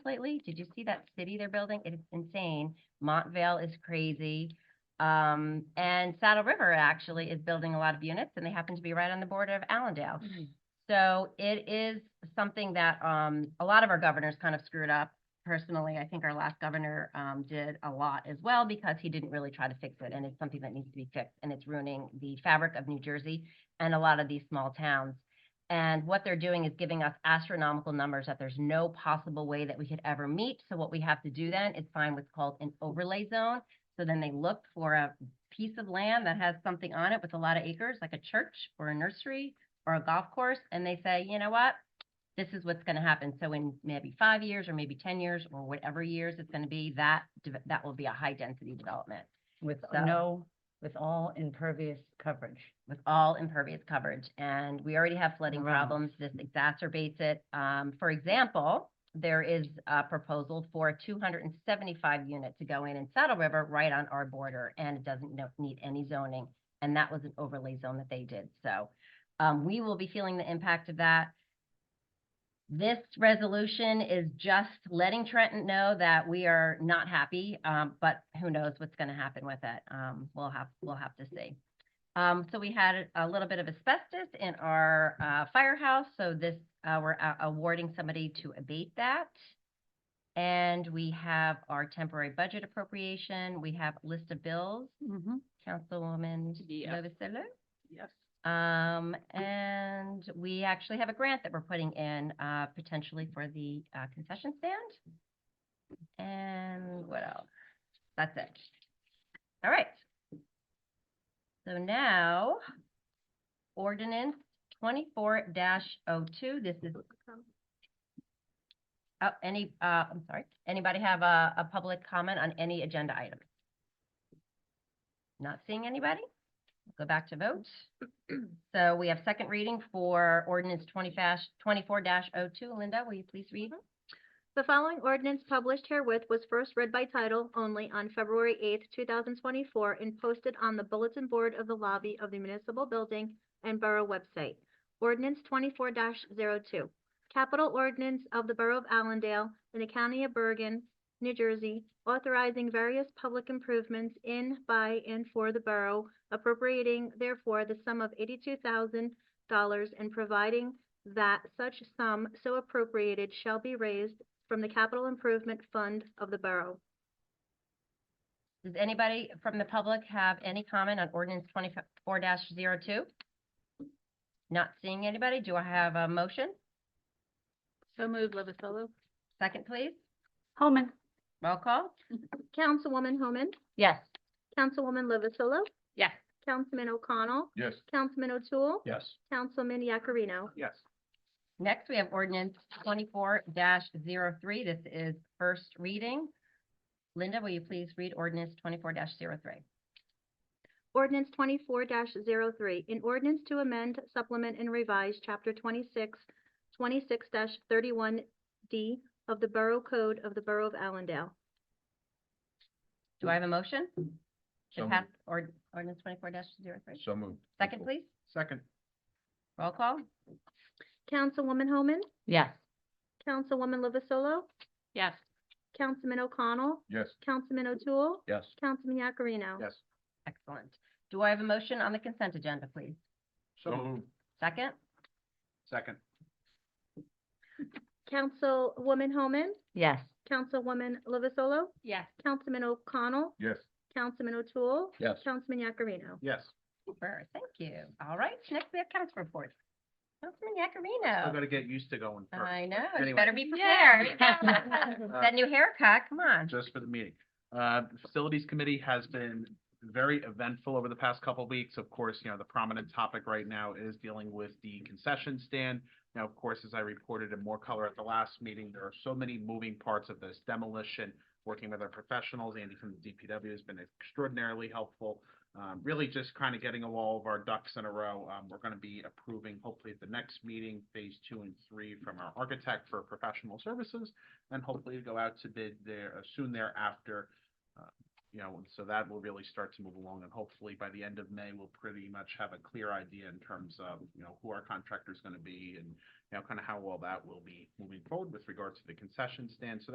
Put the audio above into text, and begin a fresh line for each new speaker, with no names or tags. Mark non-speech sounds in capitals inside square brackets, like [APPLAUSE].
lately? Did you see that city they're building? It's insane. Montvale is crazy. Um, and Saddle River actually is building a lot of units and they happen to be right on the border of Allendale. So it is something that, um, a lot of our governors kind of screwed up. Personally, I think our last governor, um, did a lot as well because he didn't really try to fix it and it's something that needs to be fixed and it's ruining the fabric of New Jersey and a lot of these small towns. And what they're doing is giving us astronomical numbers that there's no possible way that we could ever meet. So what we have to do then is find what's called an overlay zone. So then they look for a piece of land that has something on it with a lot of acres, like a church or a nursery or a golf course, and they say, you know what? This is what's gonna happen. So in maybe five years or maybe ten years or whatever years it's gonna be, that, deve- that will be a high density development
With
So-
no, with all impervious coverage.
with all impervious coverage. And we already have flooding
Wow.
problems. This exacerbates it. Um, for example, there is a proposal for a two hundred and seventy-five unit to go in in Saddle River right on our border and it doesn't no- need any zoning. And that was an overlay zone that they did. So, um, we will be feeling the impact of that. This resolution is just letting Trenton know that we are not happy, um, but who knows what's gonna happen with it. Um, we'll have, we'll have to see. Um, so we had a little bit of asbestos in our, uh, firehouse, so this, uh, we're a- awarding somebody to abate that. And we have our temporary budget appropriation, we have a list of bills, Councilwoman
Yeah.
Novoselo?
Yes.
Um, and we actually have a grant that we're putting in, uh, potentially for the, uh, concession stand. And what else? That's it. All right. So now, ordinance twenty-four 2 this is. Oh, any, uh, I'm sorry, anybody have a, a public comment on any agenda item? Not seeing anybody? Go back to vote. So we have second reading for ordinance twenty dash, twenty-four dash oh two. Linda, will you please read?
The following ordinance published herewith was first read by title only on February eighth, two thousand twenty-four, and posted on the bulletin board of the lobby of the municipal building and borough website. Ordinance twenty-four 2 Capital ordinance of the Borough of Allendale in the County of Bergen, New Jersey, authorizing various public improvements in, by, and for the borough, appropriating therefore the sum of eighty-two thousand dollars and providing that such sum so appropriated shall be raised from the Capital Improvement Fund of the Borough.
Does anybody from the public have any comment on ordinance twenty-four 2 Not seeing anybody. Do I have a motion?
So moved, Lovasolo?
Second, please.
Holman?
Roll call.
Councilwoman Homan,
Yes.
Councilwoman Lovasolo,
Yes.
Councilman O'Connell,
Yes.
Councilman O'Toole,
Yes.
Councilman Yakarino.
Yes.
Next, we have ordinance twenty-four 3 This is first reading. Linda, will you please read ordinance twenty-four 3
Ordinance twenty-four 3 an ordinance to amend, supplement, and revise Chapter 26, 26 thirty-one D of the Borough Code of the Borough of Allendale.
Do I have a motion?
So
To pass ord- ordinance twenty-four 3
So moved.
Second, please.
Second.
Roll call.
Councilwoman Homan,
Yes.
Councilwoman Lovasolo,
Yes.
Councilman O'Connell,
Yes.
Councilman O'Toole,
Yes.
Councilman Yakarino.
Yes.
Excellent. Do I have a motion on the consent agenda, please?
So moved.
Second?
Second.
Councilwoman Homan,
Yes.
Councilwoman Lovasolo,
Yes.
Councilman O'Connell,
Yes.
Councilman O'Toole,
Yes.
Councilman Yakarino.
Yes.
Super, thank you. All right, next we have council reports. Councilman
I'm
Yakarino.
gonna get used to going first,
I know, you
Anyway.
better be
Oh. Uh, Yeah.
prepared.
[LAUGHS]
[LAUGHS]
[LAUGHS]
That new haircut, come on.
just for the meeting. Uh, the Facilities Committee has been very eventful over the past couple of weeks. Of course, you know, the prominent topic right now is dealing with the concession stand. Now, of course, as I reported in more color at the last meeting, there are so many moving parts of this demolition. Working with our professionals, Andy from the DPW has been extraordinarily helpful. Um, really just kind of getting all of our ducks in a row. Um, we're gonna be approving hopefully at the next meeting, phase two and three from our architect for professional services and hopefully to go out to bid there uh, soon thereafter. Uh, You know, and so that will really start to move along and hopefully by the end of May, we'll pretty much have a clear idea in terms of, you know, who our contractor is going to be and, you know, kind of how well that will be moving forward with regard to the concession stand. So